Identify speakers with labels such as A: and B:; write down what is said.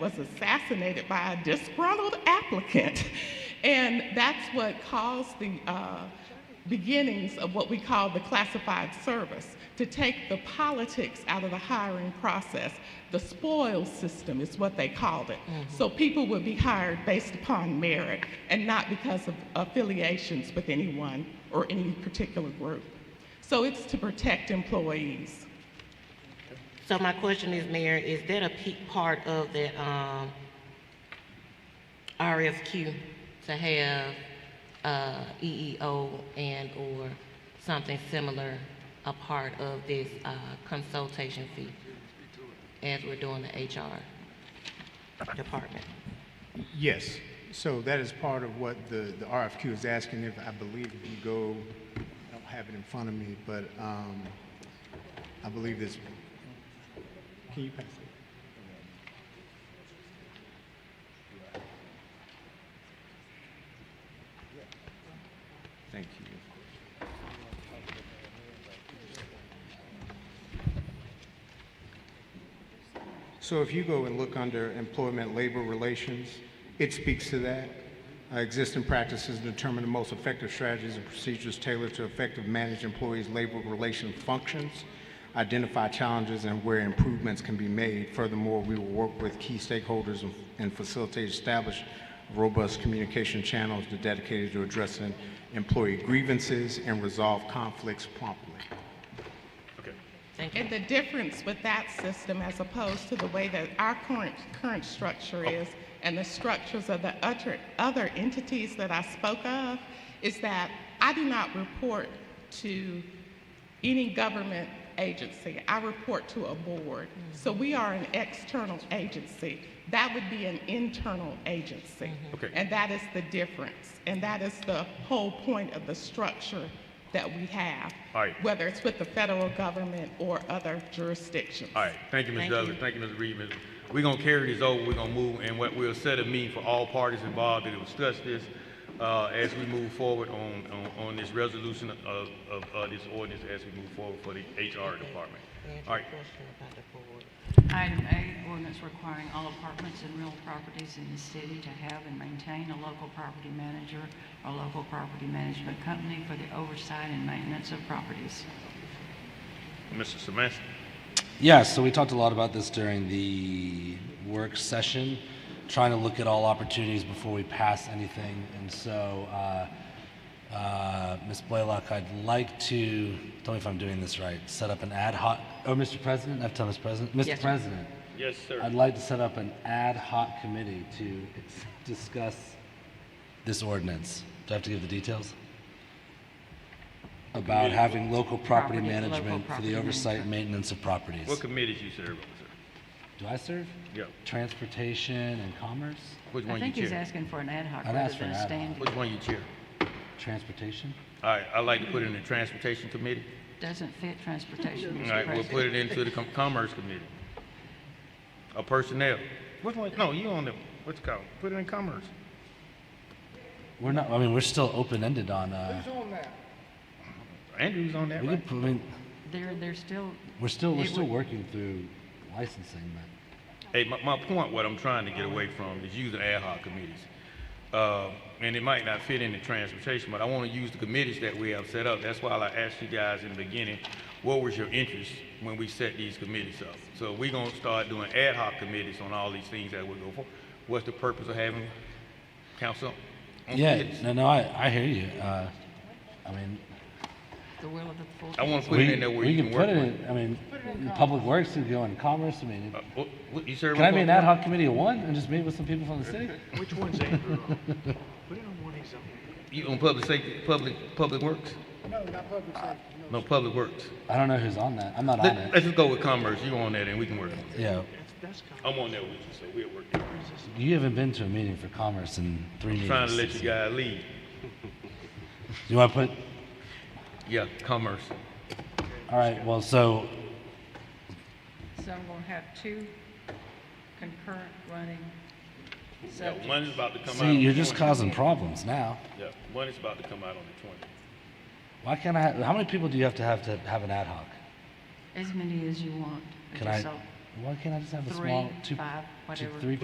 A: was assassinated by a disgruntled applicant. And that's what caused the uh, beginnings of what we call the classified service to take the politics out of the hiring process. The spoils system is what they called it. So people would be hired based upon merit and not because of affiliations with anyone or any particular group. So it's to protect employees.
B: So my question is, Mayor, is that a peak part of that, um, RFQ to have, uh, EEO and/or something similar a part of this, uh, consultation fee as we're doing the HR department?
C: Yes, so that is part of what the, the RFQ is asking if, I believe if you go, I don't have it in front of me, but, um, I believe this, can you pass it?
D: Thank you.
C: So if you go and look under employment labor relations, it speaks to that. Uh, Existing practices determine the most effective strategies and procedures tailored to effective manage employees' labor relation functions, identify challenges and where improvements can be made. Furthermore, we will work with key stakeholders and- and facilitate establish robust communication channels dedicated to addressing employee grievances and resolve conflicts promptly.
B: Thank you.
A: And the difference with that system as opposed to the way that our current, current structure is and the structures of the other, other entities that I spoke of is that I do not report to any government agency. I report to a board. So we are an external agency. That would be an internal agency.
D: Okay.
A: And that is the difference. And that is the whole point of the structure that we have.
D: All right.
A: Whether it's with the federal government or other jurisdictions.
D: All right, thank you, Ms.
B: Thank
D: Douglas,
B: you.
D: thank you, Ms. Reed. Ms. We're gonna carry this over, we're gonna move, and what we'll set a meeting for all parties involved that will discuss this, uh, as we move forward on, on, on this resolution of, of, uh, this ordinance as we move forward for the HR department. All right,
E: Item A, ordinance requiring all apartments and real properties in the city to have and maintain a local property manager or local property management company for the oversight and maintenance of properties.
D: Mr. Samansky.
F: Yeah, so we talked a lot about this during the work session, trying to look at all opportunities before we pass anything. And so, uh, uh, Ms. Blaylock, I'd like to, tell me if I'm doing this right, set up an ad hoc, oh, Mr. President, I've told Mr. President, Mr.
B: Yes, sir.
F: President,
D: Yes,
F: I'd like to set up an ad hoc committee to ex- discuss this ordinance. Do I have to give the details? About having local
E: Property,
F: property
E: local
F: management for
E: property
F: the oversight
E: management.
F: maintenance of properties.
D: What committees you serve on, sir?
F: Do I serve?
D: Yeah,
F: Transportation and commerce?
D: which
E: I
D: one you
E: think he's
D: chair?
E: asking for an ad hoc
F: I'd
E: rather
F: ask for
E: than
F: an
E: a
F: ad hoc.
E: standing.
D: Which one you chair?
F: Transportation?
D: All right, I'd like to put it in the transportation committee.
E: Doesn't fit transportation,
D: All
E: Mr.
D: right, we'll put it
E: President.
D: into the com- commerce committee. Or personnel. Which one, no, you on the, what's it called, put it in commerce.
F: We're not, I mean, we're still open-ended on, uh,
D: Andrew's on that,
F: we could,
D: right?
F: put- I mean,
E: They're, they're still,
F: we're still, we're
E: It
F: still
E: would-
F: working through licensing, but
D: Hey, my, my point, what I'm trying to get away from is using ad hoc committees. Uh, and it might not fit into transportation, but I want to use the committees that we have set up. That's why I asked you guys in the beginning, what was your interest when we set these committees up? So we're gonna start doing ad hoc committees on all these things that we go for. What's the purpose of having council? on
F: yeah,
D: committees?
F: no, no, I, I hear you. Uh, I mean,
E: the will of the full.
D: I want to put
F: we,
D: it in there where
F: we
D: you can
F: can put
D: work
F: it
D: with.
F: in, I mean, public works could go in commerce, I mean,
D: Uh, what- what- You sure?
F: can I be an ad hoc committee of one and just meet with some people from the city?
G: Which one's Andrew on? Put it on one he's on.
D: You on public safety, public, public works? No, not public safety. No, public works.
F: I don't know who's on that, I'm not on
D: Let-
F: it.
D: Let's just go with commerce. You on that and we can work on it.
F: Yeah,
G: That's, that's kind
D: I'm on there with you, so we'll work it. out.
F: you haven't been to a meeting for commerce in three meetings.
D: Trying to let you
F: since-
D: guys lead.
F: You wanna put
D: Yeah, commerce.
F: All right, well, so,
E: So I'm gonna have two concurrent running
D: Yeah,
E: subjects.
D: one is about to come out.
F: see,
D: on the
F: you're just
D: 20th.
F: causing problems now.
D: Yeah, one is about to come out on the twentieth.
F: Why can't I, how many people do you have to have to have an ad hoc?
E: As many as you want.
F: Can I,
E: So
F: why can't I just have a
E: three,
F: small, two,
E: five,
F: two,
E: whatever.
F: three